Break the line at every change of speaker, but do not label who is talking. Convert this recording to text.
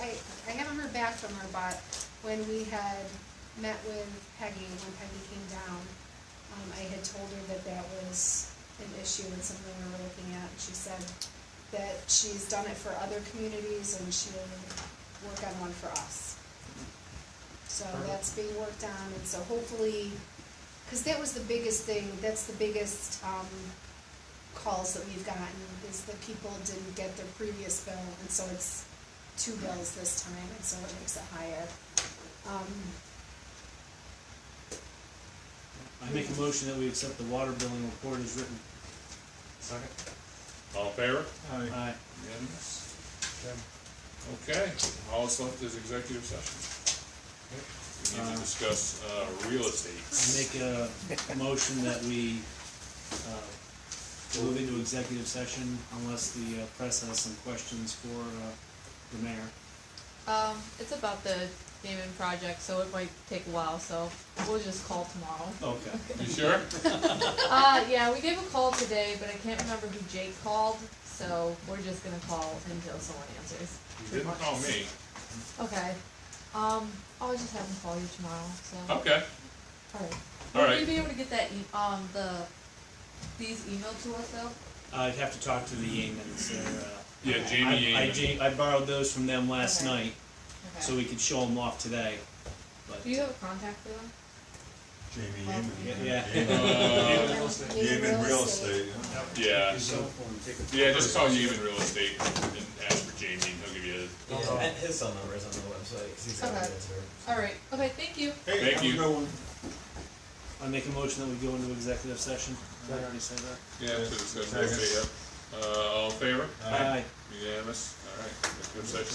back from her, but when we had met with Peggy, when Peggy came down, um, I had told her that that was an issue and something we were looking at, and she said that she's done it for other communities and she'll work on one for us. So
Perfect.
that's being worked on, and so hopefully, cause that was the biggest thing, that's the biggest, um, calls that we've gotten, is that people didn't get their previous bill, and so it's two bills this time, and so it makes it higher. Um,
I make a motion that we accept the water billing report as written.
Second.
All in favor?
Aye.
Unanimous? Okay, all that's left is executive session. We need to discuss, uh, real
I
estate.
make a motion that we, uh, move into executive session unless the uh, press has some questions for, uh, the mayor.
Um, it's about the Damon project, so it might take a while, so we'll just call tomorrow.
Okay.
You sure?
Uh, yeah, we gave a call today, but I can't remember who Jake called, so we're just gonna call until someone answers.
You didn't call me.
Okay, um, I'll just have him call you tomorrow, so,
Okay,
alright.
Oh. all
Will we
right.
be able to get that e- um, the, these emailed to us though?
I'd have to talk to the Yeamans, they're, uh.
Yeah,
I-
Jamie
I,
Yeaman.
ja- I borrowed those from them last
Okay.
night, so we could show them off today, but.
Do you have a contact for them?
Jamie
Well,
Yeaman.
yeah.
Uh,
Yeaman Real Estate, yeah.
Yeah,
His cell phone, take a-
yeah, just call Yeaman Real Estate and ask for Jamie, and he'll give you,
Yeah.
And his cell number is on the website, because he's got
Okay.
it there.
Alright, okay, thank you.
Hey,
Thank
have a
you.
good one.
I make a motion that we go into executive session. Did I already say that?
yeah, to discuss real estate, yeah. Uh, all in favor?
Aye.
Unanimous? All right, executive session.